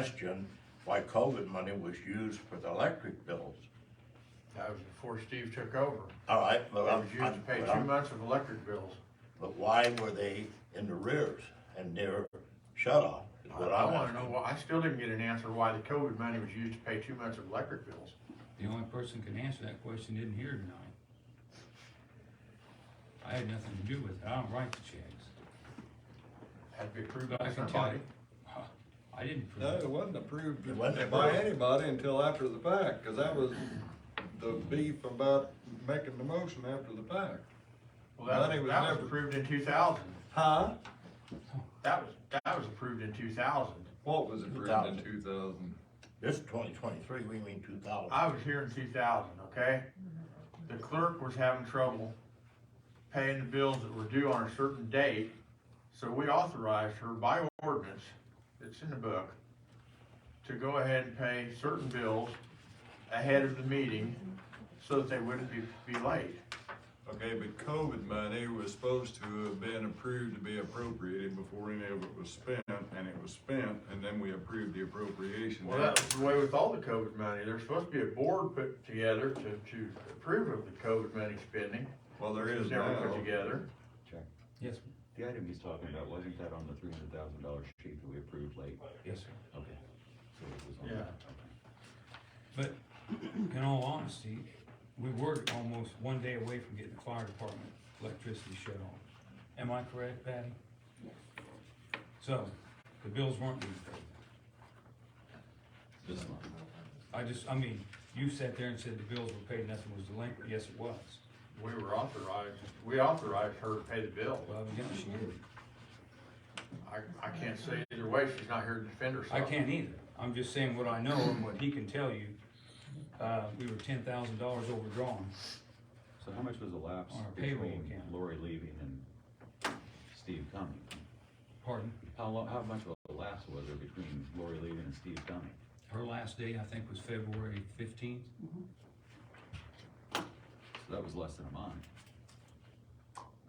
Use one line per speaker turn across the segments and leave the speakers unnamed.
question why COVID money was used for the electric bills.
That was before Steve took over.
All right, but
It was
I'm,
used to pay
but
two
I'm-
months of electric bills.
but why were they in the rears and near shut off? is
I
what I'm
wanna
asking.
know, why- I still didn't get an answer why the COVID money was used to pay two months of electric bills.
The only person can answer that question isn't here tonight. I had nothing to do with it, I don't write the checks.
Had to be approved
But I
by
can tell
somebody.
you, I didn't
No,
prove
it
it.
wasn't approved
It wasn't
by
approved.
anybody until after the fact, cause that was the beef about making the motion after the fact.
Well, that
Money
was,
was
that was
never-
approved in two thousand.
Huh?
That was, that was approved in two thousand.
What was approved in two thousand?
This twenty twenty-three, we mean two thousand.
I was here in two thousand, okay? The clerk was having trouble paying the bills that were due on a certain date, so we authorized her by ordinance, it's in the book, to go ahead and pay certain bills ahead of the meeting so that they wouldn't be, be late.
Okay, but COVID money was supposed to have been approved to be appropriated before any of it was spent, and it was spent, and then we approved the appropriation.
Well, that was the way with all the COVID money, there's supposed to be a board put together to, to approve of the COVID money spending.
Well, there
It was
is
never put
now.
together.
Yes, sir.
The item he's talking about, wasn't that on the three hundred thousand dollar sheet that we approved late?
yes, sir.
Okay. So it was on
Yeah.
that, okay.
But in all honesty, we were almost one day away from getting the fire department electricity shut off. Am I correct, Patty? So, the bills weren't being paid.
This month.
I just, I mean, you sat there and said the bills were paid, nothing was delinquent, yes, it was.
We were authorized, we authorized her to pay the bill.
Well, evidently she did.
I, I can't say either way, she's not here to defend herself.
I can't either. I'm just saying what I know and what he can tell you. Uh, we were ten thousand dollars overdrawn.
So how much was the lapse
On our payroll
between
account.
Lori leaving and Steve coming?
Pardon?
How long, how much of a lapse was there between Lori leaving and Steve coming?
Her last day, I think, was February fifteenth.
So that was less than a month.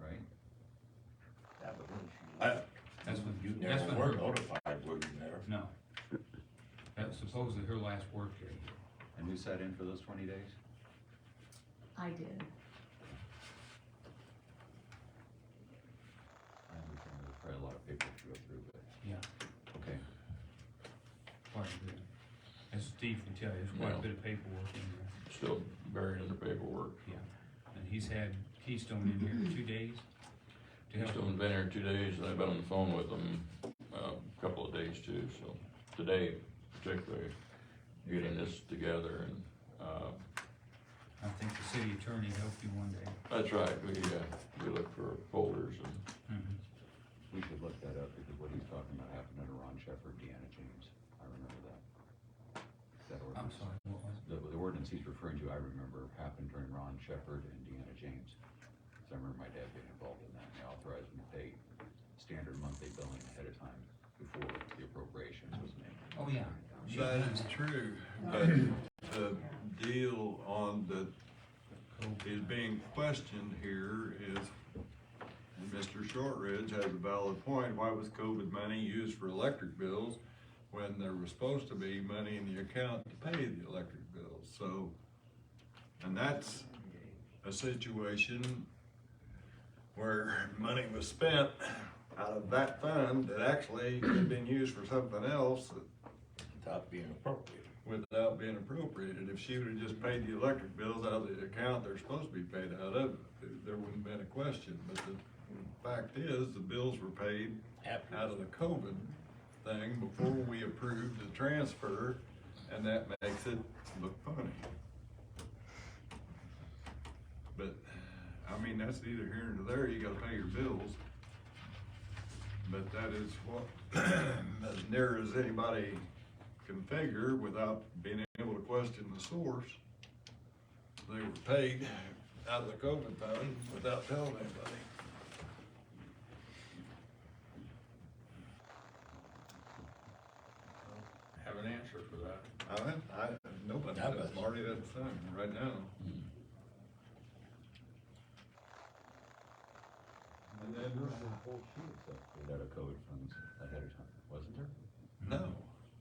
Right?
I-
That's when,
You
that's
never
when
were
her,
notified, were you there?
no. That was supposedly her last workday.
And who sat in for those twenty days?
I did.
I understand there's probably a lot of paperwork to go through, but,
Yeah,
okay.
quite a bit. As Steve can tell you, there's quite a bit of paperwork in there.
still buried under paperwork.
And he's had Keystone in here two days to help
Just only been here two days, and I've been on the phone with them uh, a couple of days too, so today particularly, getting this together and, uh,
I think the city attorney helped you one day.
that's right, we, uh, we look for folders and,
Mhm.
We should look that up because what he's talking about happened under Ron Shepard, Deanna James. I remember that. That
I'm
ordinance.
sorry, what was
The, the ordinance he's referring to, I remember happened during Ron Shepard and Deanna James. So I remember my dad getting involved in that and they authorized them to pay standard monthly billing ahead of time before the appropriations was made.
it? Oh, yeah. She-
That is true, but the deal on the is being questioned here is, and Mr. Shortridge has a valid point, why was COVID money used for electric bills when there was supposed to be money in the account to pay the electric bills, so, and that's a situation where money was spent out of that fund that actually could have been used for something else
Without being appropriate.
without being appropriated. If she would've just paid the electric bills out of the account they're supposed to be paid out of, there wouldn't been a question. But the fact is, the bills were paid
After-
out of the COVID thing before we approved the transfer, and that makes it look funny. But, I mean, that's neither here nor there, you gotta pay your bills. But that is what, as near as anybody can figure without being able to question the source. They were paid out of the COVID fund without telling anybody.
Have an answer for that.
I, don't- I, nobody
That
does,
was-
Marty doesn't sign right now. And then,
Without a COVID funds ahead of time, wasn't there?
no,